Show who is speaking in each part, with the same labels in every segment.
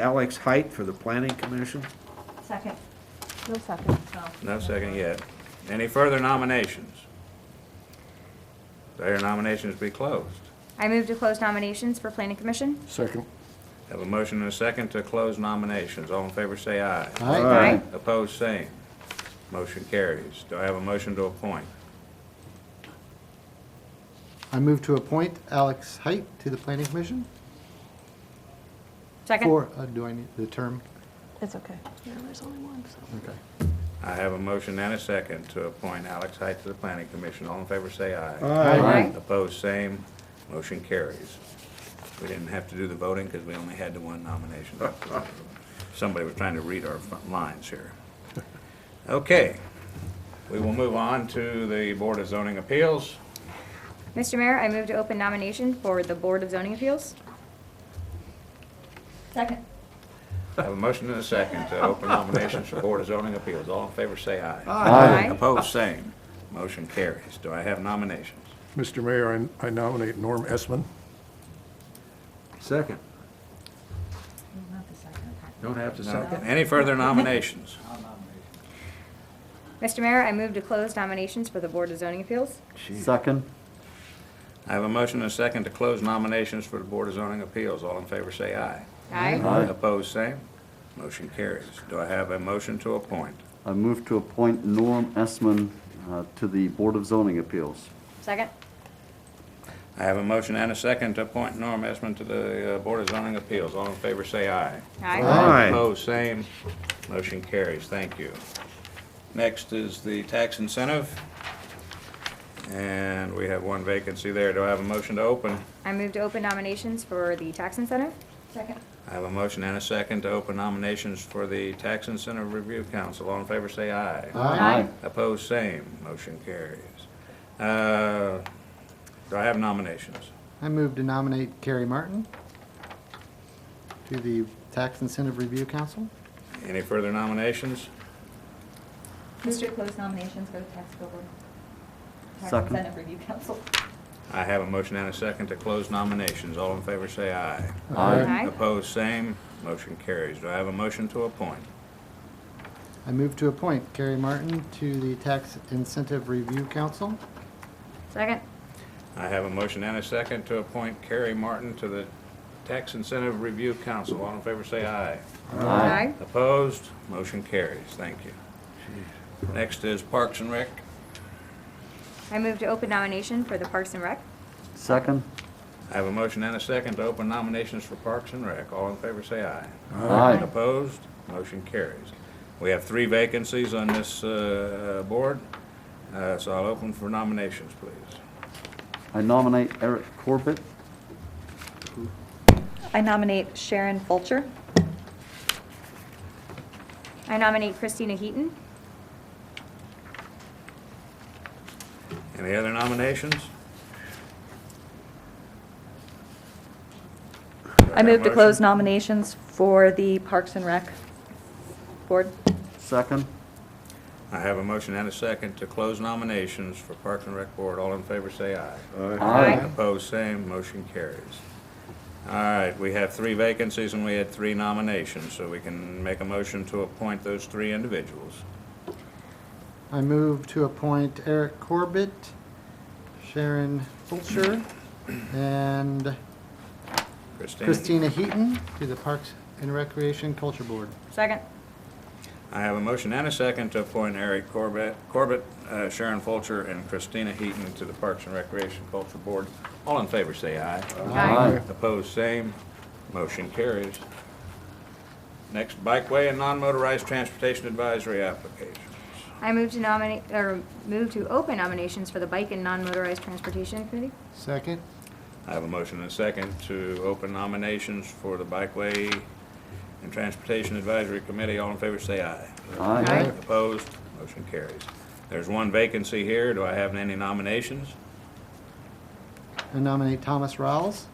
Speaker 1: Alex Height for the Planning Commission.
Speaker 2: Second,
Speaker 3: No second.
Speaker 2: oh.
Speaker 4: No second yet. Any further nominations? Their nominations be closed.
Speaker 5: I move to close nominations for planning commission.
Speaker 6: Second.
Speaker 4: Have a motion and a second to close nominations. All in favor, say aye.
Speaker 1: Aye.
Speaker 4: Opposed, same. Motion carries. Do I have a motion to appoint?
Speaker 6: I move to appoint Alex Height to the Planning Commission
Speaker 5: Second.
Speaker 6: for, uh, do I need the term?
Speaker 3: It's okay. Yeah, there's only one, so.
Speaker 6: Okay.
Speaker 4: I have a motion and a second to appoint Alex Height to the planning commission. All in favor, say aye.
Speaker 5: Aye.
Speaker 4: Opposed, same. Motion carries. We didn't have to do the voting because we only had the one nomination. Somebody was trying to read our front lines here. Okay, we will move on to the Board of Zoning Appeals.
Speaker 5: Mr. Mayor, I move to open nomination for the Board of Zoning Appeals.
Speaker 2: Second,
Speaker 4: I have a motion and a second to open nominations for Board of Zoning Appeals. All in favor, say aye.
Speaker 5: Aye.
Speaker 4: Opposed, same. Motion carries. Do I have nominations?
Speaker 7: Mr. Mayor, I I nominate Norm Esman.
Speaker 1: Second.
Speaker 2: not the second, okay.
Speaker 1: Don't have to
Speaker 4: No.
Speaker 1: second.
Speaker 4: Any further nominations?
Speaker 5: Mr. Mayor, I move to close nominations for the Board of Zoning Appeals.
Speaker 8: Second.
Speaker 4: I have a motion and a second to close nominations for the Board of Zoning Appeals. All in favor, say aye.
Speaker 5: Aye.
Speaker 8: Aye.
Speaker 4: Opposed, same. Motion carries. Do I have a motion to appoint?
Speaker 8: I move to appoint Norm Esman uh, to the Board of Zoning Appeals.
Speaker 5: Second.
Speaker 4: I have a motion and a second to appoint Norm Esmond to the uh, Board of Zoning Appeals. All in favor, say aye.
Speaker 5: Aye.
Speaker 1: Aye.
Speaker 4: Opposed, same. Motion carries. Thank you. Next is the tax incentive. And we have one vacancy there. Do I have a motion to open?
Speaker 5: I move to open nominations for the tax incentive.
Speaker 2: Second,
Speaker 4: I have a motion and a second to open nominations for the Tax Incentive Review Council. All in favor, say aye.
Speaker 5: Aye.
Speaker 4: Opposed, same. Motion carries. Uh, Do I have nominations?
Speaker 6: I move to nominate Carrie Martin to the Tax Incentive Review Council.
Speaker 4: Any further nominations?
Speaker 2: move to close nominations for the tax bill board. Tax
Speaker 8: Second.
Speaker 2: incentive review council.
Speaker 4: I have a motion and a second to close nominations. All in favor, say aye.
Speaker 5: Aye.
Speaker 4: Opposed, same. Motion carries. Do I have a motion to appoint?
Speaker 6: I move to appoint Carrie Martin to the Tax Incentive Review Council.
Speaker 5: Second.
Speaker 4: I have a motion and a second to appoint Carrie Martin to the Tax Incentive Review Council. All in favor, say aye.
Speaker 5: Aye.
Speaker 4: Opposed? Motion carries. Thank you. Next is Parks and Rec.
Speaker 5: I move to open nomination for the Parks and Rec.
Speaker 8: Second.
Speaker 4: I have a motion and a second to open nominations for Parks and Rec. All in favor, say aye.
Speaker 8: Aye.
Speaker 4: Opposed? Motion carries. We have three vacancies on this uh, board, uh, so I'll open for nominations, please.
Speaker 8: I nominate Eric Corbett.
Speaker 9: I nominate Sharon Fulcher.
Speaker 5: I nominate Christina Heaton.
Speaker 4: Any other nominations?
Speaker 9: I move to close nominations for the Parks and Rec Board.
Speaker 8: Second.
Speaker 4: I have a motion and a second to close nominations for Parks and Rec Board. All in favor, say aye.
Speaker 5: Aye.
Speaker 4: Opposed, same, motion carries. All right, we have three vacancies and we had three nominations, so we can make a motion to appoint those three individuals.
Speaker 6: I move to appoint Eric Corbett, Sharon Fulcher, and
Speaker 4: Christine?
Speaker 6: Christina Heaton to the Parks and Recreation Culture Board.
Speaker 5: Second.
Speaker 4: I have a motion and a second to appoint Eric Corbett, Corbett, uh, Sharon Fulcher, and Christina Heaton to the Parks and Recreation Culture Board. All in favor, say aye.
Speaker 8: Aye.
Speaker 4: Opposed, same, motion carries. Next, bikeway and non-motorized transportation advisory application.
Speaker 5: I move to nominate, or move to open nominations for the Bike and Non-Motorized Transportation Committee.
Speaker 6: Second.
Speaker 4: I have a motion and a second to open nominations for the Bikeway and Transportation Advisory Committee. All in favor, say aye.
Speaker 8: Aye.
Speaker 4: Opposed? Motion carries. There's one vacancy here. Do I have any nominations?
Speaker 6: I nominate Thomas Rawls.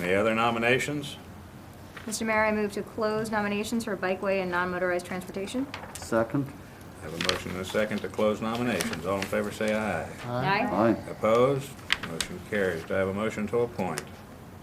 Speaker 4: Any other nominations?
Speaker 5: Mr. Mayor, I move to close nominations for Bikeway and Non-Motorized Transportation.
Speaker 8: Second.
Speaker 4: I have a motion and a second to close nominations. All in favor, say aye.
Speaker 8: Aye.
Speaker 4: Opposed? Motion carries. Do I have a motion to appoint?